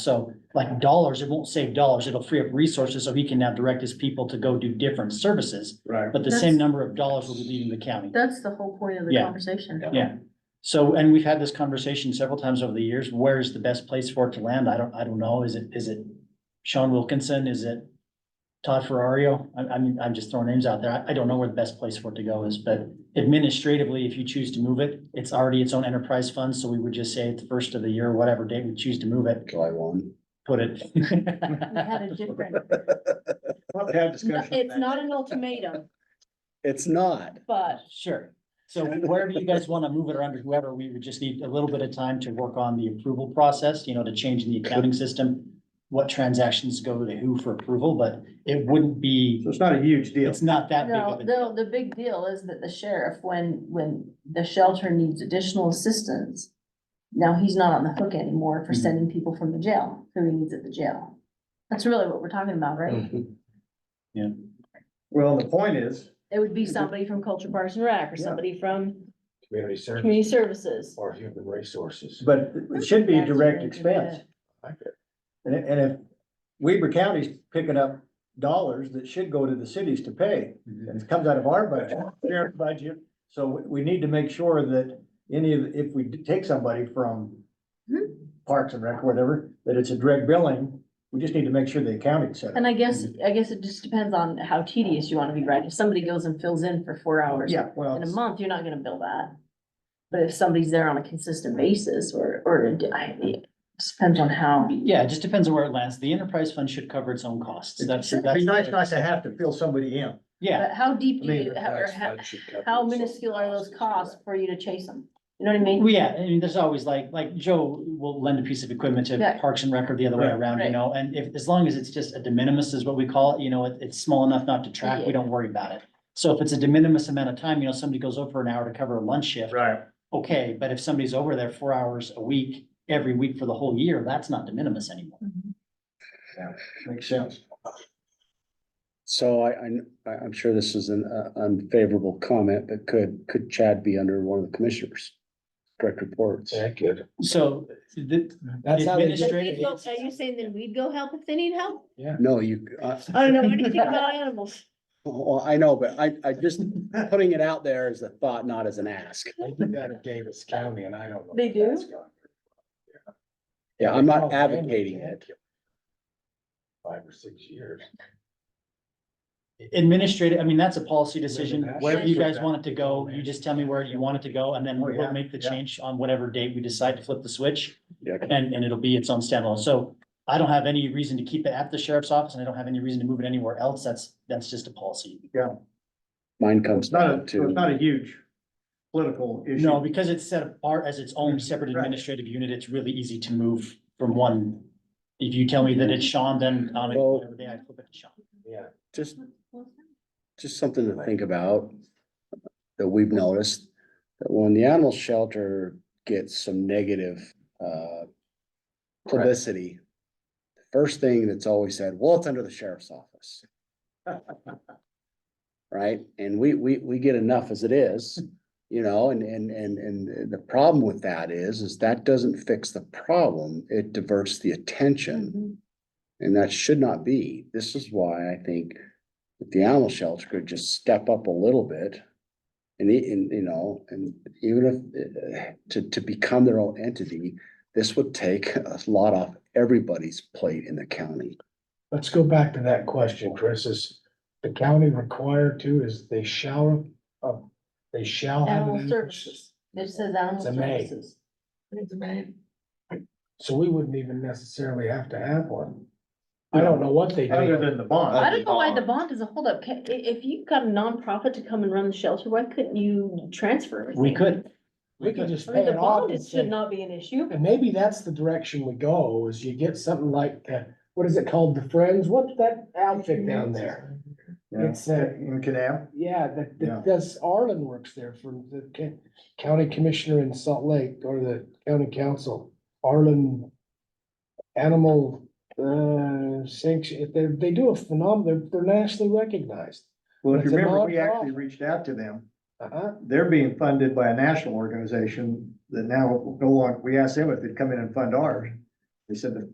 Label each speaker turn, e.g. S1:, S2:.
S1: So like dollars, it won't save dollars. It'll free up resources so he can now direct his people to go do different services.
S2: Right.
S1: But the
S3: That's-
S1: same number of dollars will be leaving the county.
S3: That's the whole point of the
S1: Yeah.
S3: conversation.
S1: Yeah. So, and we've had this conversation several times over the years. Where is the best place for it to land? I don't, I don't know. Is it, is it Sean Wilkinson? Is it Todd Ferrario? I, I mean, I'm just throwing names out there. I, I don't know where the best place for it to go is, but administratively, if you choose to move it, it's already its own enterprise fund. So we would just say at the first of the year, whatever date we choose to move it,
S4: July one.
S1: put it.
S3: We had a different,
S2: We'll have discussion.
S3: it's not an ultimatum,
S4: It's not.
S3: but
S1: Sure. So wherever you guys want to move it or under whoever, we would just need a little bit of time to work on the approval process, you know, to change the accounting system. What transactions go to who for approval, but it wouldn't be,
S2: So it's not a huge deal.
S1: it's not that big
S3: no,
S1: of a
S3: the,
S1: deal.
S3: the big deal is that the sheriff, when, when the shelter needs additional assistance. Now he's not on the hook anymore for
S1: Mhm.
S3: sending people from the jail, who he needs at the jail. That's really what we're talking about,
S1: Mm.
S3: right?
S2: Mm-hmm. Well, the point is,
S3: It would be somebody from Culture Parks and Rec or
S2: Yeah.
S3: somebody from
S5: Community service
S3: Community Services.
S5: or human resources.
S2: but it should be a
S3: That's
S2: direct
S3: really good.
S2: expense.
S5: I could-
S2: And, and if Weber County's picking up dollars that should go to the cities to pay,
S1: Mhm.
S2: and it comes out of our budget, their budget. So we, we need to make sure that any of, if we do take somebody from
S3: Hmm?
S2: Parks and Rec, or whatever, that it's a direct billing. We just need to make sure the accounting set.
S3: And I guess, I guess it just depends on how tedious you wanna be, right? If somebody goes and fills in for four hours.
S2: Yeah, well,
S3: In a month, you're not gonna bill that. But if somebody's there on a consistent basis or, or it just depends on how.
S1: Yeah, it just depends on where it lands. The enterprise fund should cover its own costs. That's,
S2: it'd
S1: that's.
S2: be nice not to have to fill somebody in.
S1: Yeah,
S3: But how deep do
S2: I mean,
S3: you, how- or
S5: That's-
S3: how,
S5: that should cover
S3: how
S5: itself.
S3: minuscule are those costs for you to chase them? You know what I mean?
S1: Well, yeah, I mean, there's always like, like Joe will lend a piece of equipment to
S3: Yeah.
S1: Parks and Rec or the other way
S2: Right.
S1: around, you
S3: Right.
S1: know, and if, as long as it's just a de minimis is what we call it, you know, it, it's small enough not to track, we
S3: Yeah.
S1: don't worry about it. So if it's a de minimis amount of time, you know, somebody goes over an hour to cover a lunch shift,
S2: Right.
S1: okay, but if somebody's over there four hours a week, every week for the whole year, that's not de minimis anymore.
S2: Makes sense.
S4: So I, I, am sure this is an uh, unfavorable comment, but could, could Chad be under one of the commissioners? Direct reports.
S5: Yeah, I could.
S1: So the
S4: That's how they,
S1: Administ- Straight up.
S3: Are you saying then we'd go help if they need help?
S4: no, you, uh,
S3: I don't know anything about animals.
S4: well, I know, but I, I just putting it out there as a thought, not as an ask.
S5: I did that in Davis County and I don't know.
S3: They
S5: if that's
S3: do?
S5: gone.
S4: Yeah, I'm
S5: Oh,
S4: not
S5: man,
S4: advocating
S5: they
S4: it.
S5: can't kill Five or six years.
S1: administrative, I mean, that's a policy decision,
S5: that's-
S1: wherever you guys want it to go, you just tell me where you want it to go, and then
S2: Oh, yeah.
S1: we'll make the
S2: Yeah.
S1: change on whatever date we decide to flip the switch.
S4: Yeah,
S1: And, and it'll be its own standalone. So I don't have any reason to keep it at the sheriff's office and I don't have any reason to move it anywhere else. That's, that's just a policy.
S4: mine
S2: It's
S4: comes
S2: not
S4: down
S2: a, so it's
S4: to,
S2: not a huge political issue.
S1: No, because it's set apart as its own separate
S2: Right.
S1: administrative unit, it's really easy to move from one. If you tell me that it's Sean, then on a-
S4: Well-
S1: whatever day I flip it to Sean.
S5: Yeah.
S4: just, just something to think about. That we've noticed, that when the animal shelter gets some negative, uh, publicity. the First thing that's always said, well, it's under the sheriff's office. Right? And we, we, we get enough as it is, you know, and, and, and, and the problem with that is, is that doesn't fix the problem. It diverts the attention.
S3: Mm-hmm.
S4: And that should not be. This is why I think if the animal shelter could just step up a little bit. And, e- and, you know, and even if, uh, to, to become their own entity, this would take a lot off everybody's plate in the county.
S5: Let's go back to that question, Chris, is the county required to, is they shall, uh, they shall have.
S3: Animal
S5: an-
S3: services. It says animal
S5: It's a maid.
S3: services.
S5: So we wouldn't even necessarily have to have one. I don't know what they
S2: Other
S5: do.
S2: than the bond.
S3: I don't know why the bond is a holdup. Ca- i- If you've got a nonprofit to come and run the shelter, why couldn't you transfer?
S1: We
S3: everything?
S1: could,
S5: We could just
S3: I mean,
S5: pay
S3: the
S5: it off.
S3: bond
S5: and
S3: is- should
S5: say-
S3: not be an issue.
S5: And maybe that's the direction we go, is you get something like, uh, what is it called, the Friends, what's that outfit down there?
S2: Yeah.
S5: It's, uh,
S2: In Canam.
S5: Yeah, that,
S2: Yeah.
S5: that does, Arlen works there for the ca- county commissioner in Salt Lake or the county council. Arlen Animal, uh, sanction, they, they do a phenomenal, they're, they're nationally recognized.
S2: Well, if you
S5: It's a
S2: remember, we
S5: nonprofit.
S2: actually reached out to them.
S5: Uh-huh,
S2: They're being funded by a national organization that now no longer, we asked them if they'd come in and fund ours. They said the